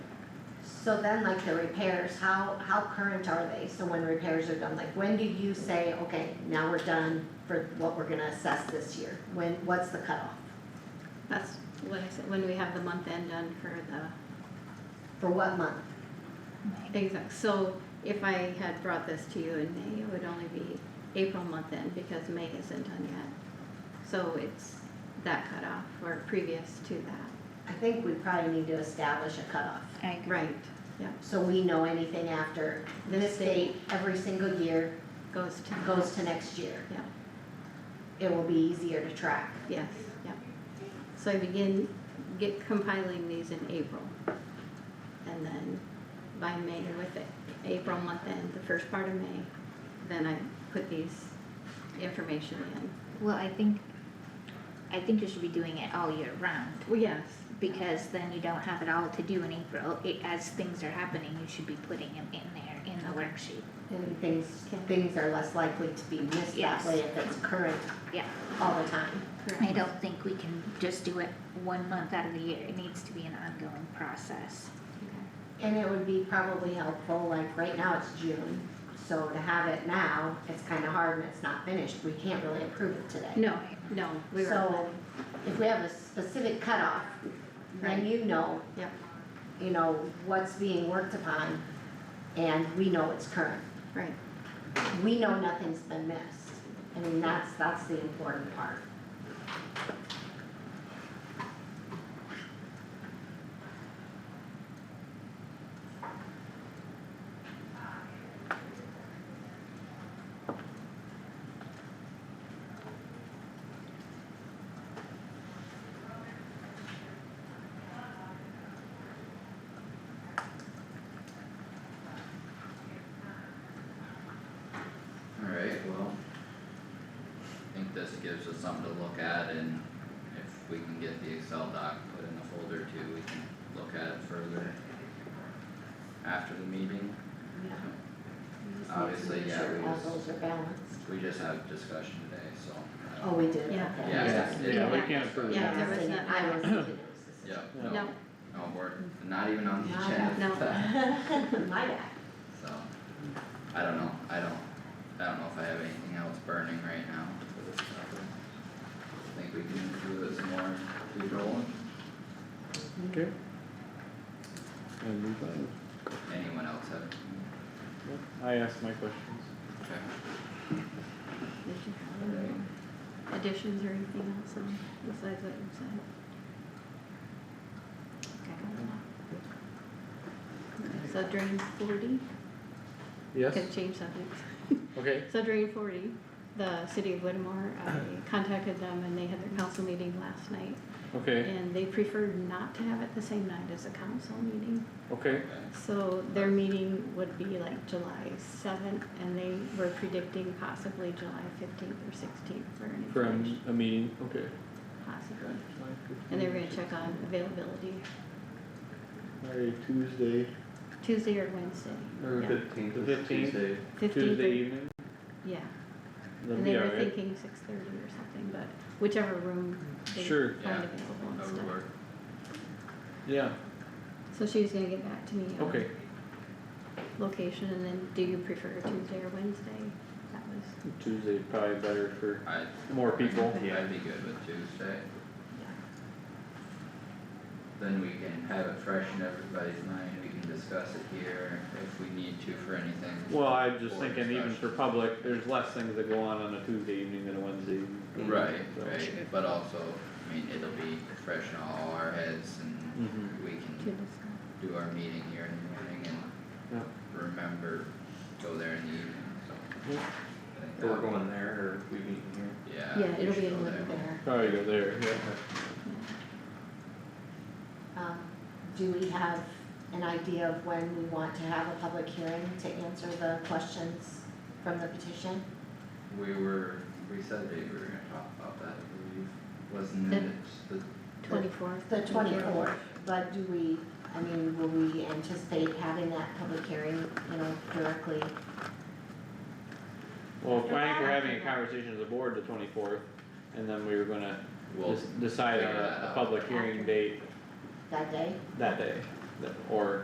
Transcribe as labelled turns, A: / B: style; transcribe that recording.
A: So then like the repairs, how, how current are they? So when repairs are done, like when do you say, okay, now we're done for what we're gonna assess this year? When, what's the cutoff?
B: That's what I said, when we have the month end done for the
A: For what month?
B: exact, so if I had brought this to you in May, it would only be April month end because May isn't done yet. So it's that cutoff or previous to that,
A: I think we probably need to establish a cutoff.
C: I agree.
B: right, yeah,
A: So we know anything after this
B: This
A: date,
B: date.
A: every single year,
B: goes to.
A: goes to next year.
B: Yeah,
A: It will be easier to track.
B: yes, yeah. So I begin, get compiling these in April. And then by May, with it, April month end, the first part of May, then I put these information in.
C: Well, I think, I think you should be doing it all year round,
B: Well, yes,
C: because then you don't have it all to do in April. It, as things are happening, you should be putting them in there in the
B: Okay.
C: worksheet.
A: And things, things are less likely to be missed that
C: Yes.
A: way if it's current
C: Yeah,
A: all the time.
C: I
B: correct.
C: don't think we can just do it one month out of the year. It needs to be an ongoing process.
B: Okay.
A: And it would be probably helpful, like right now it's June, so to have it now, it's kinda hard and it's not finished, we can't really approve it today.
B: No, no, we were
A: So,
B: planning,
A: if we have a specific cutoff, then
B: Right.
A: you know,
B: yeah,
A: you know, what's being worked upon, and we know it's current.
B: right,
A: We know nothing's been missed, I mean, that's, that's the important part.
D: Alright, well. I think this gives us something to look at and if we can get the Excel doc put in the folder too, we can look at it further. After the meeting,
A: Yeah. We just need to
D: Obviously,
A: make
D: yeah,
A: sure
D: we
A: All
D: just-
A: those are balanced.
D: we just had discussion today, so. I
A: Oh,
D: don't-
A: we did, okay.
B: Yeah.
D: Yeah,
E: Yeah,
D: it's-
E: yeah, we
B: Yeah.
E: can't approve
B: Yeah.
E: that.
B: there was
A: Singing,
B: not-
A: I was thinking
D: Yeah,
A: it
E: Yeah.
D: no,
B: no,
D: no, we're not even on the
A: Not
D: agenda
B: that-
D: for that,
A: was Susan. My bad.
D: so. I don't know, I don't, I don't know if I have anything else burning right now for this topic. I Think we can do this more, keep rolling.
E: Okay. And move on.
D: Anyone else have? anything?
E: Yep, I asked my questions.
D: Okay.
B: Did you have any additions or anything else on besides what you said? Okay, So during forty,
E: Yes,
B: could change subjects.
E: okay,
B: So during forty, the city of Whittemore, I contacted them and they had their council meeting last night.
E: okay,
B: And they preferred not to have it the same night as a council meeting.
E: okay,
B: So their meeting would be like July seventh, and they were predicting possibly July fifteenth or sixteenth for an
E: for a,
B: information,
E: a meeting, okay.
B: possibly. And they were gonna check on availability
E: Alright, Tuesday,
B: Tuesday or Wednesday.
F: Or
B: Yeah.
F: fifteenth
E: The
F: is
E: 15th.
F: Tuesday.
B: Fifteenth
E: Tuesday
B: or,
E: evening,
B: yeah,
E: that'd
B: and
E: be
B: they were
E: alright,
B: thinking six thirty or something, but whichever room they
E: Sure.
B: find
D: Yeah,
B: available and
D: That
B: stuff.
D: would work.
E: yeah,
B: So she was gonna get back to me on
E: okay,
B: location, and then do you prefer Tuesday or Wednesday? That was,
E: Tuesday probably better for
D: I,
E: more people,
B: Okay.
D: I'd be good with Tuesday,
B: yeah,
D: then we can have it fresh in everybody's mind, we can discuss it here if we need to for anything.
E: well, I'm just
D: Or
E: thinking even for
D: discussion.
E: public, there's less things that go on on a Tuesday evening than a Wednesday evening.
D: Right,
E: so.
C: Sure.
D: right, but also, I mean, it'll be fresh in all our heads and
E: Mhm.
D: we
B: to
D: can
B: discuss.
D: do our meeting here in the morning and
E: Yeah.
D: remember, go there in the evening, so.
E: Yeah.
D: I think
F: We're
D: that-
F: going there or we meeting here.
D: Yeah.
B: Yeah,
D: we
B: it'll
D: should
B: be
D: go
B: in living there.
E: Probably go there, yeah.
A: Um, do we have an idea of when we want to have a public hearing to answer the questions from the petition?
D: We were, we said that we were gonna talk about that, I believe, wasn't
B: The-
D: it the
B: Twenty-fourth.
A: The twenty-fourth, but do we, I mean, will we anticipate having that public hearing, you know, directly?
E: Well, I think we're having a conversation as a board the twenty-fourth, and then we were gonna
D: Well,
E: just decide on
D: figure that
E: a, a
D: out.
E: public hearing
B: After.
E: date
A: that day?
E: that day, that- or